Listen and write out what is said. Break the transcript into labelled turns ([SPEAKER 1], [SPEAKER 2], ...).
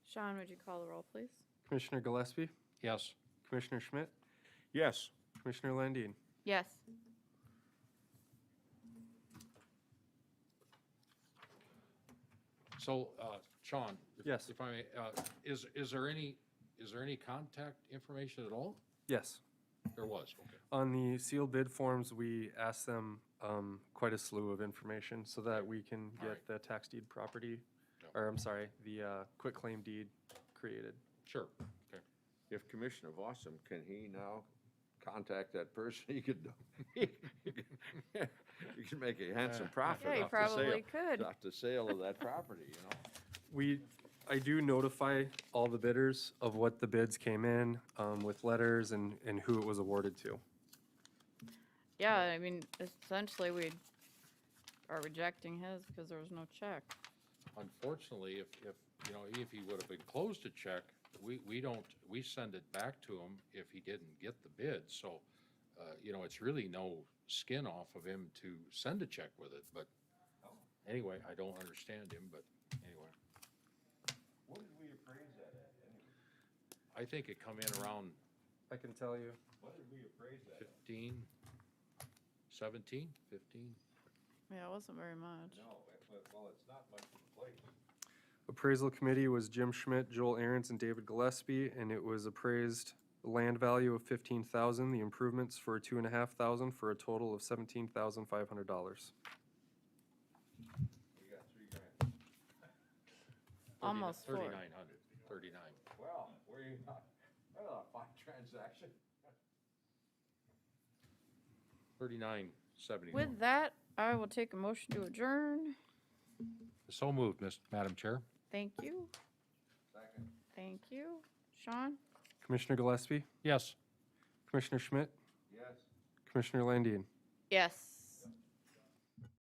[SPEAKER 1] Sean, would you call the roll, please?
[SPEAKER 2] Commissioner Gillespie,
[SPEAKER 3] Yes.
[SPEAKER 2] Commissioner Schmidt,
[SPEAKER 4] Yes.
[SPEAKER 2] Commissioner Landine.
[SPEAKER 1] Yes.
[SPEAKER 3] So, uh, Sean? if-
[SPEAKER 2] Yes.
[SPEAKER 3] If I may, uh, is, is there any, is there any contact information at all?
[SPEAKER 2] Yes.
[SPEAKER 3] There was, okay.
[SPEAKER 2] On the sealed bid forms, we ask them um, quite a slew of information so that we can
[SPEAKER 3] All
[SPEAKER 2] get
[SPEAKER 3] right.
[SPEAKER 2] the tax deed property,
[SPEAKER 3] Yeah.
[SPEAKER 2] or I'm sorry, the uh, quitclaim deed created.
[SPEAKER 3] Sure, okay.
[SPEAKER 4] If Commissioner Fossum, can he now contact that person? He could, he could make a handsome
[SPEAKER 1] Yeah,
[SPEAKER 4] profit
[SPEAKER 1] you
[SPEAKER 4] off the
[SPEAKER 1] probably
[SPEAKER 4] sale.
[SPEAKER 1] could.
[SPEAKER 4] Off the sale of that property, you know?
[SPEAKER 2] We, I do notify all the bidders of what the bids came in um, with letters and, and who it was awarded to.
[SPEAKER 1] Yeah, I mean, essentially, we are rejecting his because there was no check.
[SPEAKER 3] Unfortunately, if, if, you know, if he would have enclosed a check, we, we don't, we send it back to him if he didn't get the bid. So, uh, you know, it's really no skin off of him to send a check with it, but anyway, I don't understand him, but anyway.
[SPEAKER 4] What did we appraise that at anyway?
[SPEAKER 3] I think it come in around
[SPEAKER 2] I can tell you.
[SPEAKER 4] What did we appraise that
[SPEAKER 3] 15, 17, 15?
[SPEAKER 1] Yeah, it wasn't very much.
[SPEAKER 4] No, well, it's not much of a place.
[SPEAKER 2] Appraisal committee was Jim Schmidt, Joel Aaronz, and David Gillespie, and it was appraised land value of fifteen thousand, the improvements for two and a half thousand, for a total of seventeen thousand five hundred dollars.
[SPEAKER 4] We got three grand.
[SPEAKER 1] Almost four.
[SPEAKER 3] 3,900, 39.
[SPEAKER 4] Well, we, that's a fine transaction.
[SPEAKER 3] 3971.
[SPEAKER 1] With that, I will take a motion to adjourn.
[SPEAKER 3] So moved, Miss- Madam Chair.
[SPEAKER 1] Thank you.
[SPEAKER 4] Second.
[SPEAKER 1] Thank you. Sean?
[SPEAKER 2] Commissioner Gillespie,
[SPEAKER 3] Yes.
[SPEAKER 2] Commissioner Schmidt,
[SPEAKER 4] Yes.
[SPEAKER 2] Commissioner Landine.
[SPEAKER 1] Yes.